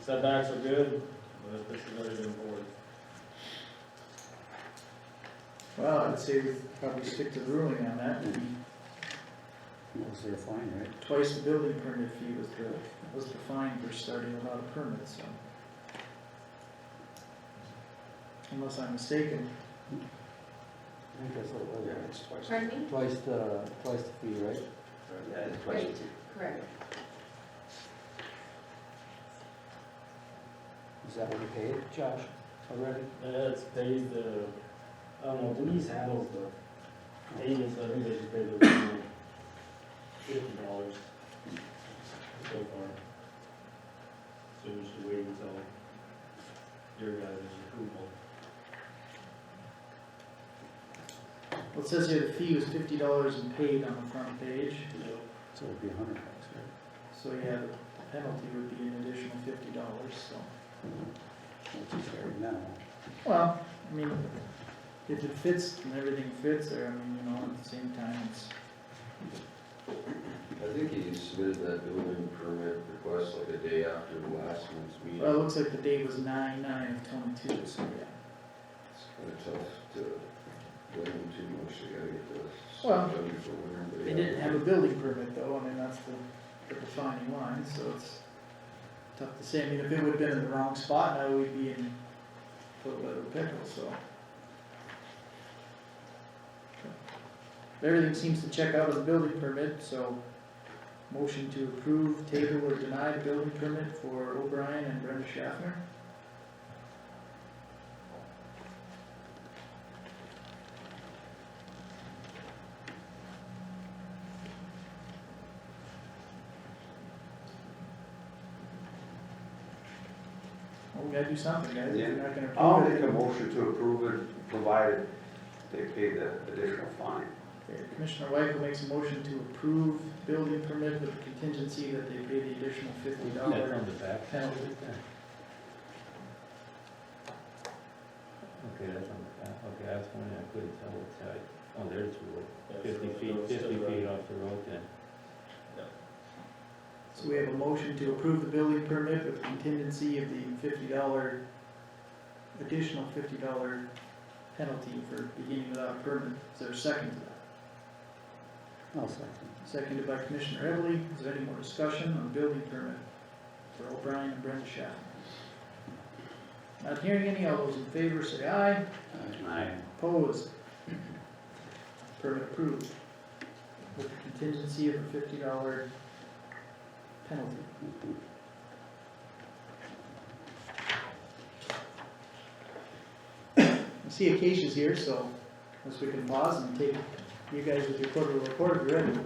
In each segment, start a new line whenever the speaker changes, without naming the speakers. setbacks are good, but this is already been forward.
Well, I'd say we probably stick to the ruling on that,
That was their fine, right?
twice the building permit fee was the, was the fine for starting without a permit, so. Unless I'm mistaken,
I think that's what it was. right?
Pardon me?
Twice the, twice the fee, right?
Yeah, it's twice,
Correct.
Is that what we paid, Josh, already?
That's pays the, I don't know, Denise handles the payments, I think they just paid the fifty dollars so far. So we should wait until your guys' approval.
well, it says here the fee was fifty dollars and paid on the front page,
So it'd be a hundred bucks, right?
so yeah, the penalty would be an additional fifty dollars, so.
Which is fair now.
Well, I mean, if it fits and everything fits there, I mean, you know, at the same time, it's,
I think he submitted that building permit request like a day after the last month's meeting.
well, it looks like the date was nine, nine of twenty-two, so yeah.
It's kinda tough to blame him too much, they gotta get the
Well,
stuff done before winter, but
They
yeah.
didn't have a building permit though, I mean, that's the, the defining line, so it's tough to say, I mean, if it would've been in the wrong spot, now we'd be in a little bit of a pickle, so. Everything seems to check out on the building permit, so motion to approve, table or deny building permit for O'Brien and Brenda Schaffner. Well, we gotta do something, guys, if we're not gonna
I'll
approve
make
it.
a motion to approve it, provided they pay the additional fine.
Okay, Commissioner Weichel makes a motion to approve building permit with the contingency that they pay the additional fifty dollars.
the back.
Penalty.
Okay, that's on the back, okay, that's one I couldn't tell what's side. Oh, there's the road,
Yeah, so
fifty
those
feet,
still
fifty
run.
feet off the road then.
So we have a motion to approve the building permit with contingency of the fifty dollar, additional fifty dollar penalty for beginning without a permit. Is there a second to that?
I'll second.
Seconded by Commissioner Everly. Is there any more discussion on building permit for O'Brien and Brenda Schaff? Not hearing any. All those in favor say aye.
Aye.
Opposed? Permit approved. With the contingency of a fifty dollar penalty. I see Acacia's here, so unless we can pause and take you guys with your quarterly report, if you're ready.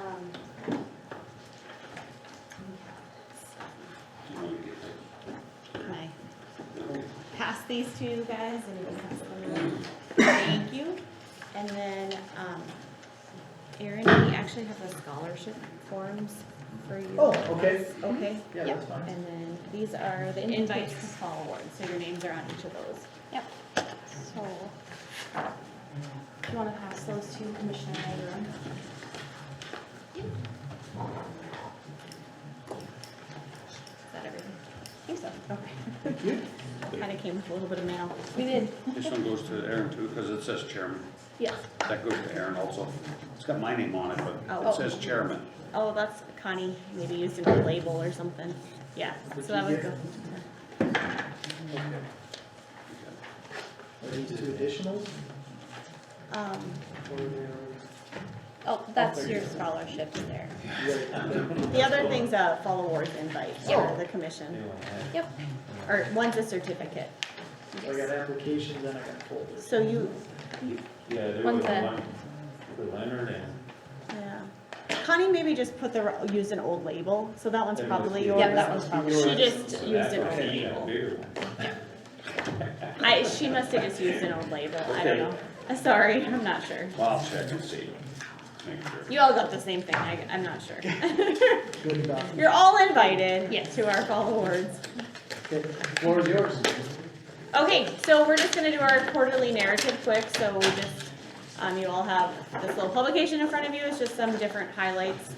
Um, Can I pass these to you guys and you can pass them around? Thank you. And then, um, Erin, we actually have the scholarship forms for you.
Oh, okay.
Okay.
Yeah,
yep.
that's fine.
And then these are the invites to fall awards, so your names are on each of those. Yep. So, do you wanna pass those to Commissioner Ira? Is that everything? I think so, okay.
Thank you.
Kinda came with a little bit of mail. We did.
This one goes to Aaron too, because it says chairman.
Yes.
That goes to Aaron also. It's got my name on it, but
Oh.
it says chairman.
Oh, that's Connie, maybe used it as a label or something. Yeah, so that would go.
Are these two additionals?
Um,
or they're-
oh, that's your scholarship there.
you gotta-
The other thing's a fall awards invite for the commission, Yep. or one's a certificate.
So I got applications and I got folders.
So you,
Yeah, there
One's
was
a-
one for Leonard and
yeah. Connie maybe just put the, used an old label, so that one's
There must
probably
be-
yours.
Yeah, that
must be yours.
She just used an old
Okay, you got
label.
bigger one.
I, she must have just used an old label, I don't know. Uh, Sorry, I'm not sure.
Well, I'll check and see. Make sure.
You all got the same thing, I, I'm not sure.
Good enough.
You're all invited to our fall awards.
Okay, floor is yours.
Okay, so we're just gonna do our quarterly narrative quick, so we just, um, you all have this little publication in front of you, it's just some different highlights